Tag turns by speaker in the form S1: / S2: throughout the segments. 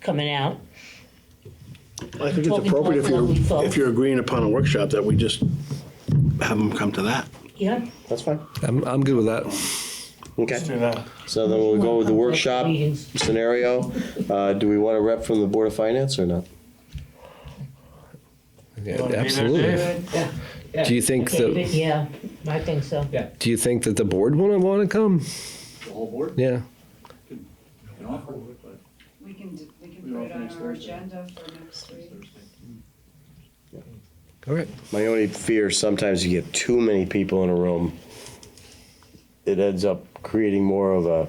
S1: coming out.
S2: I think it's
S1: Talking about
S2: appropriate if
S1: what we
S2: you're,
S1: thought.
S2: if you're agreeing upon a workshop that we just have them come to that.
S1: Yeah?
S3: That's fine.
S4: I'm, I'm good with that.
S3: Okay.
S5: Do that.
S3: So then we'll go with the workshop
S1: Meetings.
S3: scenario. Uh, do we want a rep from the Board of Finance or not?
S4: Yeah,
S5: Wanna be there,
S4: absolutely.
S5: Dave?
S1: Yeah.
S4: Do you think
S1: David,
S4: that
S1: Yeah, I think so.
S6: Yeah.
S4: Do you think that the board will want to come?
S6: The whole board?
S4: Yeah.
S6: You know, I'll work, but
S7: We can, d- we can
S6: We
S7: put
S6: all
S7: it on
S6: finish
S7: our
S6: Thursday.
S7: agenda for next week.
S6: Thursday.
S4: All right.
S3: My only fear is sometimes you get too many people in a room. It ends up creating more of a,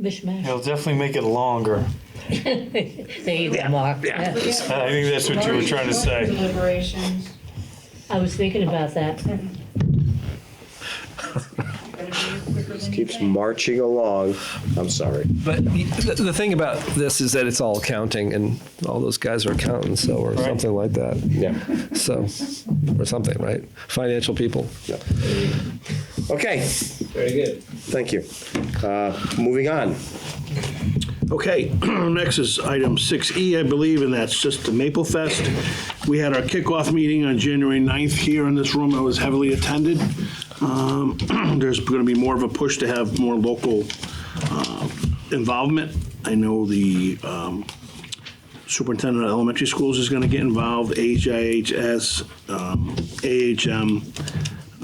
S1: Mishmash.
S5: It'll definitely make it longer.
S1: There you go, Mark. Yeah.
S7: We have-
S5: I think that's what you were trying to say.
S7: Deliberations,
S1: I was thinking about that.
S7: gonna be quicker than you
S3: keeps
S7: think.
S3: marching along. I'm sorry.
S4: But the, the thing about this is that it's all accounting, and all those guys are accountants, so or something like that.
S3: Yeah.
S4: So, or something, right? Financial people.
S3: Okay,
S6: Very good.
S3: thank you. Uh, Moving on.
S2: Okay, next is item 6E, I believe, and that's just the Maple Fest. We had our kickoff meeting on January 9th here in this room. It was heavily attended. Um, There's going to be more of a push to have more local uh, involvement. I know the um, superintendent of elementary schools is going to get involved, HIHS, um, AHM,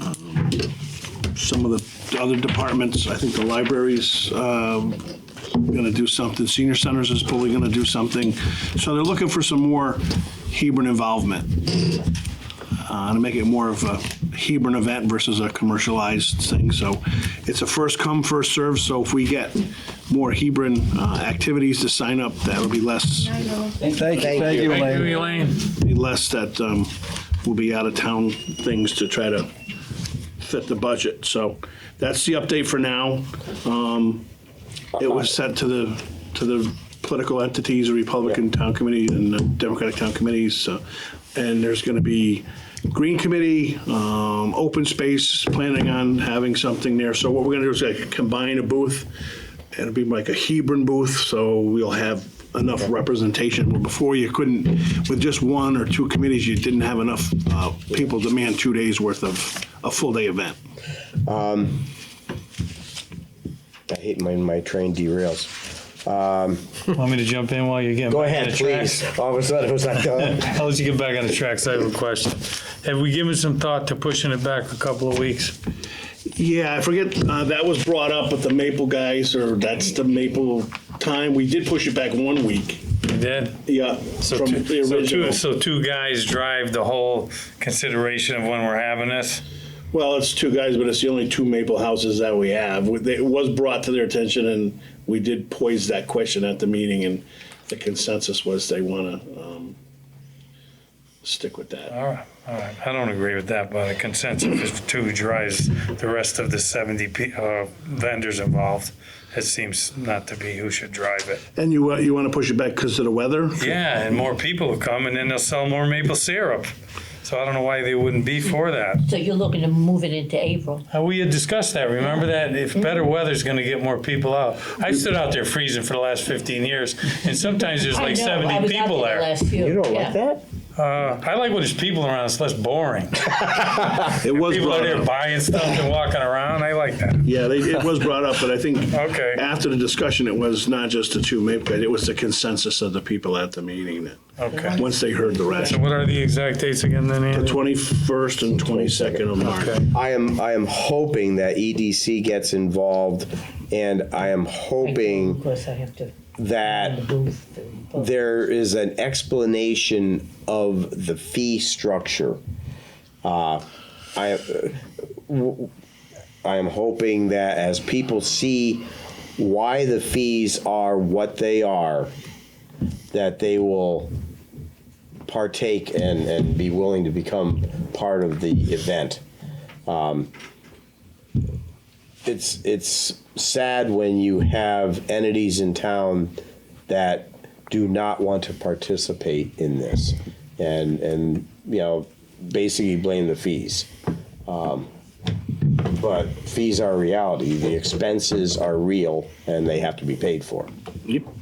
S2: um, some of the other departments. I think the libraries um, going to do something. Senior Centers is probably going to do something. So they're looking for some more Hebron involvement uh, to make it more of a Hebron event versus a commercialized thing. So it's a first come, first serve. So if we get more Hebron uh, activities to sign up, that'll be less,
S7: I know.
S4: Thank you. Thank you,
S5: Thank you, Elaine.
S2: be less that um, will be out of town things to try to fit the budget. So that's the update for now. Um, It was sent to the, to the political entities, the Republican Town Committee and the Democratic Town Committees. so- And there's going to be Green Committee, um, Open Space, planning on having something there. So what we're going to do is like combine a booth. It'll be like a Hebron booth, so we'll have enough representation. Where Before you couldn't, with just one or two committees, you didn't have enough uh, people to man two days' worth of, a full-day event.
S3: I hate when my train derails. Um,
S5: Want me to jump in while you're getting?
S3: Go
S5: back
S3: ahead,
S5: on the tracks?
S3: please. All of a sudden, it was like, uh,
S5: I'll let you get back on the tracks. I have a question. Have we given some thought to pushing it back a couple of weeks?
S2: Yeah, I forget, uh, that was brought up with the Maple guys, or that's the Maple time. We did push it back one week,
S5: You did?
S2: yeah,
S5: So
S2: from
S5: two-
S2: the
S5: so two,
S2: original.
S5: so two guys drive the whole consideration of when we're having this?
S2: Well, it's two guys, but it's the only two Maple houses that we have. With- It was brought to their attention, and we did poise that question at the meeting, and the consensus was they want to stick with that.
S5: All right, all right. I don't agree with that, but a consensus is two drives the rest of the 70 pe- uh, vendors involved. It seems not to be who should drive it.
S2: And you, uh, you want to push it back because of the weather?
S5: Yeah, and more people will come and then they'll sell more maple syrup. So I don't know why they wouldn't be for that.
S1: So you're looking to move it into April?
S5: Uh, We had discussed that, remember that? If better weather's gonna get more people out. I stood out there freezing for the last fifteen years, and sometimes there's
S1: I
S5: like
S1: know, I
S5: seventy
S1: was out
S5: people
S1: there the
S5: there.
S1: last few,
S3: you don't
S1: yeah.
S3: like that?
S5: Uh, I like when there's people around, it's less boring.
S2: It was
S5: People are
S2: brought
S5: there
S2: up.
S5: buying stuff and walking around, I like that.
S2: Yeah, they, it was brought up, but I think
S5: Okay.
S2: after the discussion, it was not just the two Maple guys, it was the consensus of the people at the meeting that,
S5: Okay.
S2: once they heard the
S5: So
S2: rationale.
S5: what are the exact dates again then,
S2: The
S5: Andy?
S2: 21st and 22nd of March.
S5: Okay.
S3: I am, I am hoping that EDC gets involved, and I am
S1: Of
S3: hoping
S1: course, I have to.
S3: that
S1: the booth, the-
S3: there is an explanation of the fee structure. Uh, I, uh, w- I am hoping that as people see why the fees are what they are, that they will partake and, and be willing to become part of the event. Um, it's it's sad when you have entities in town that do not want to participate in this and and you know basically blame the fees um, but fees are reality the expenses are real and they have to be paid for
S2: Yep.